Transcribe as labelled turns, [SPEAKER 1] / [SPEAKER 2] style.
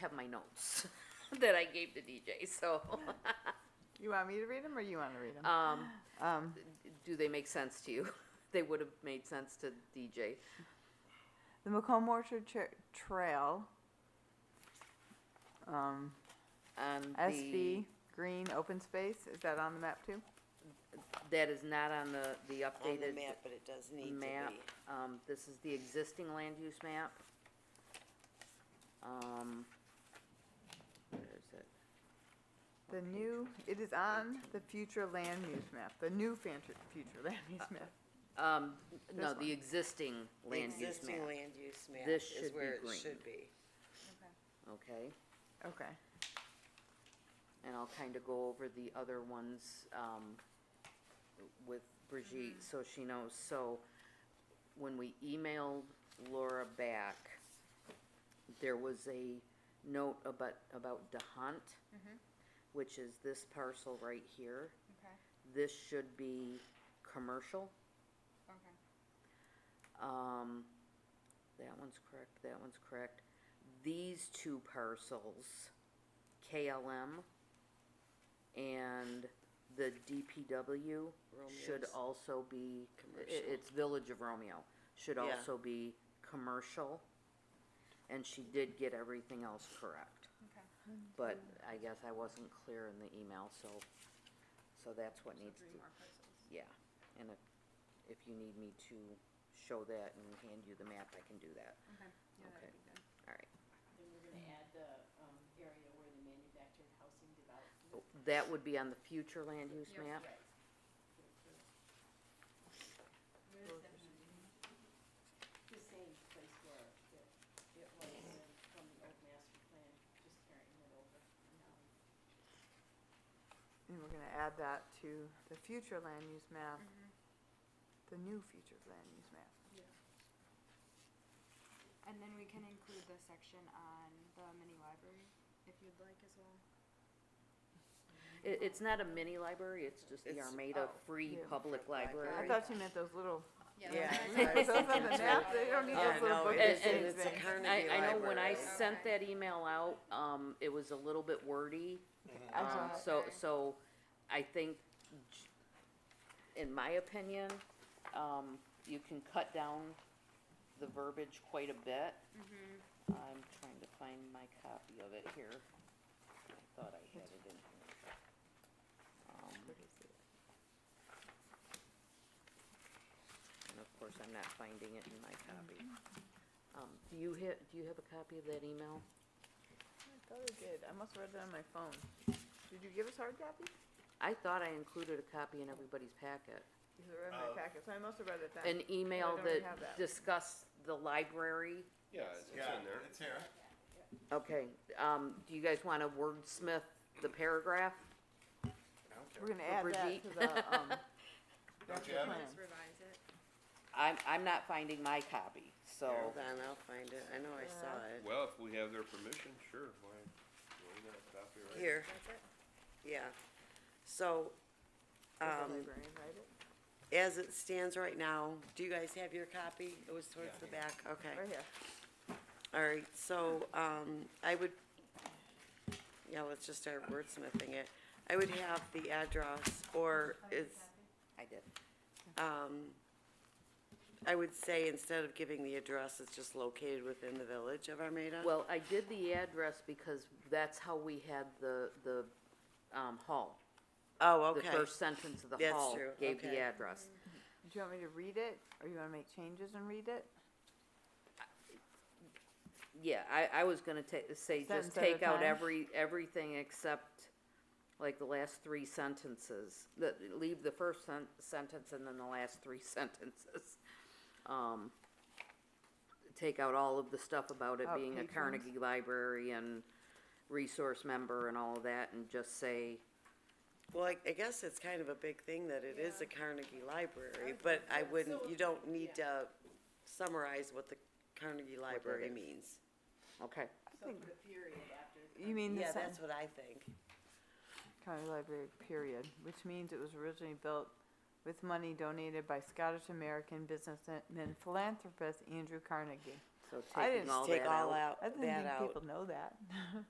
[SPEAKER 1] have my notes that I gave the DJ, so,
[SPEAKER 2] You want me to read them or you want to read
[SPEAKER 3] Uh,
[SPEAKER 2] them?
[SPEAKER 1] um,
[SPEAKER 2] Um,
[SPEAKER 1] do they make sense to you? They would have made sense to DJ.
[SPEAKER 2] the Macomb Orchard Tra- Trail. Um,
[SPEAKER 1] On the,
[SPEAKER 2] SV, green, open space, is that on the map too?
[SPEAKER 1] that is not on the, the
[SPEAKER 3] on the
[SPEAKER 1] updated
[SPEAKER 3] map, but it does need to
[SPEAKER 1] map.
[SPEAKER 3] be.
[SPEAKER 1] Um, this is the existing land use map. Um, where is it?
[SPEAKER 2] The new, it is on the future land use map, the new fantu- future land
[SPEAKER 3] Uh,
[SPEAKER 2] use map.
[SPEAKER 1] Um, no,
[SPEAKER 2] This one.
[SPEAKER 1] the existing land use
[SPEAKER 3] Existing
[SPEAKER 1] map,
[SPEAKER 3] land use map
[SPEAKER 1] This
[SPEAKER 3] is
[SPEAKER 1] should be
[SPEAKER 3] where it
[SPEAKER 1] green.
[SPEAKER 3] should be.
[SPEAKER 1] okay?
[SPEAKER 2] Okay,
[SPEAKER 1] And I'll kind of go over the other ones um, with
[SPEAKER 3] Mm-hmm.
[SPEAKER 1] Brigitte, so she knows. So when we emailed Laura back, there was a note about, about DeHunt, which is this parcel right here.
[SPEAKER 4] Okay,
[SPEAKER 1] This should be commercial.
[SPEAKER 4] okay.
[SPEAKER 1] Um, that one's correct, that one's correct. These two parcels, KLM and the DPW should
[SPEAKER 3] Romeo's.
[SPEAKER 1] also be, i-
[SPEAKER 3] Commercial.
[SPEAKER 1] it's Village of Romeo, should
[SPEAKER 3] Yeah.
[SPEAKER 1] also be commercial. And she did get everything else correct.
[SPEAKER 4] Okay.
[SPEAKER 1] But I guess I wasn't clear in the email, so, so that's what needs to. Yeah, and if, if you need me to show that and hand you the map, I can do that.
[SPEAKER 4] Okay, yeah,
[SPEAKER 1] Okay.
[SPEAKER 4] that'd be good.
[SPEAKER 1] All right.
[SPEAKER 5] Then we're gonna add the, um, area where the manufactured housing development.
[SPEAKER 1] Oh, That would be on the future land use
[SPEAKER 4] Yep.
[SPEAKER 1] map.
[SPEAKER 5] Where is that? The same place where it, it was in- from the old master plan, just carrying it over. and now
[SPEAKER 2] and we're gonna add that to the future land use map,
[SPEAKER 4] Mm-hmm.
[SPEAKER 2] the new future land use map.
[SPEAKER 4] And then we can include the section on the mini library, if you'd like as well.
[SPEAKER 1] It, it's not a mini library, it's just the
[SPEAKER 3] It's-
[SPEAKER 1] Armada
[SPEAKER 4] oh,
[SPEAKER 1] Free
[SPEAKER 2] yeah.
[SPEAKER 1] Public
[SPEAKER 2] I
[SPEAKER 1] Library.
[SPEAKER 2] thought you meant those little,
[SPEAKER 3] Yeah,
[SPEAKER 2] those on
[SPEAKER 3] Sorry.
[SPEAKER 2] the map, they don't need
[SPEAKER 3] Yeah,
[SPEAKER 2] those little
[SPEAKER 3] no, it
[SPEAKER 2] booklet
[SPEAKER 3] is-
[SPEAKER 1] and
[SPEAKER 2] shaped
[SPEAKER 3] it's a
[SPEAKER 2] things.
[SPEAKER 3] Carnegie
[SPEAKER 1] I, I know when I
[SPEAKER 3] Library.
[SPEAKER 1] sent that email out, um, it was a little bit wordy.
[SPEAKER 2] I
[SPEAKER 1] Um,
[SPEAKER 2] saw it.
[SPEAKER 1] so,
[SPEAKER 4] Okay.
[SPEAKER 1] so I think, j- in my opinion, um, you can cut down the verbiage quite a bit.
[SPEAKER 4] Mm-hmm.
[SPEAKER 1] I'm trying to find my copy of it here. I thought I had it in here. Um, And of course, I'm not finding it in my copy. Um, do you ha- do you have a copy of that email?
[SPEAKER 2] I thought I did, I must have read it on my phone. Did you give us hard copy?
[SPEAKER 1] I thought I included a copy in everybody's packet.
[SPEAKER 2] Is it read in my
[SPEAKER 6] Uh,
[SPEAKER 2] packet, so I must have read it
[SPEAKER 1] An
[SPEAKER 2] then.
[SPEAKER 1] email
[SPEAKER 2] don't have
[SPEAKER 1] that
[SPEAKER 2] that.
[SPEAKER 1] discussed the library.
[SPEAKER 6] Yeah, it's, it's in there. It's here.
[SPEAKER 1] Okay, um, do you guys wanna wordsmith the paragraph?
[SPEAKER 6] I don't
[SPEAKER 2] We're gonna
[SPEAKER 1] For
[SPEAKER 2] add that
[SPEAKER 1] Brigitte.
[SPEAKER 2] to the, um,
[SPEAKER 6] Don't you
[SPEAKER 2] master
[SPEAKER 6] have it?
[SPEAKER 2] plan.
[SPEAKER 4] revise it.
[SPEAKER 1] I'm, I'm not finding my copy, so,
[SPEAKER 3] Hold on, I'll find it. I know I saw it.
[SPEAKER 6] Well, if we have their permission, sure, why, why not copyright?
[SPEAKER 3] Here,
[SPEAKER 4] That's it?
[SPEAKER 3] yeah. So,
[SPEAKER 2] Does the
[SPEAKER 3] um,
[SPEAKER 2] librarian write it?
[SPEAKER 3] as it stands right now, do you guys have your copy? It was towards the back, okay.
[SPEAKER 2] Right here.
[SPEAKER 3] All right, so, um, I would, yeah, let's just start wordsmithing it. I would have the address, or it's,
[SPEAKER 1] I did.
[SPEAKER 3] um, I would say instead of giving the address, it's just located within the village of Armada.
[SPEAKER 1] Well, I did the address because that's how we had the, the, um, hall.
[SPEAKER 3] Oh,
[SPEAKER 1] The
[SPEAKER 3] okay.
[SPEAKER 1] first sentence of the
[SPEAKER 3] That's
[SPEAKER 1] hall
[SPEAKER 3] true,
[SPEAKER 1] gave the
[SPEAKER 3] okay.
[SPEAKER 1] address.
[SPEAKER 2] Do you want me to read it, or you wanna make changes and read it?
[SPEAKER 1] Yeah, I, I was gonna ta- say, just
[SPEAKER 2] Sentence at a
[SPEAKER 1] take out
[SPEAKER 2] time?
[SPEAKER 1] every, everything except, like, the last three sentences. The, leave the first sen- sentence and then the last three sentences. Um, take out all of the stuff about it
[SPEAKER 2] About
[SPEAKER 1] being a
[SPEAKER 2] patrons?
[SPEAKER 1] Carnegie Library and resource member and all of that, and just say,
[SPEAKER 3] Well, I, I guess it's kind of a big thing that it is a Carnegie Library, but I wouldn't, you don't need to summarize what the Carnegie Library
[SPEAKER 1] is.
[SPEAKER 3] means.
[SPEAKER 1] okay,
[SPEAKER 5] So put a period after.
[SPEAKER 2] You mean the
[SPEAKER 3] Yeah,
[SPEAKER 2] sentence,
[SPEAKER 3] that's what I think.
[SPEAKER 2] county library, period, which means it was originally built with money donated by Scottish-American businessman philanthropist Andrew Carnegie.
[SPEAKER 1] So
[SPEAKER 2] I
[SPEAKER 1] taking
[SPEAKER 2] didn't
[SPEAKER 1] all that out.
[SPEAKER 3] Take all out,
[SPEAKER 2] I didn't
[SPEAKER 3] that
[SPEAKER 2] think
[SPEAKER 3] out.
[SPEAKER 2] people know that.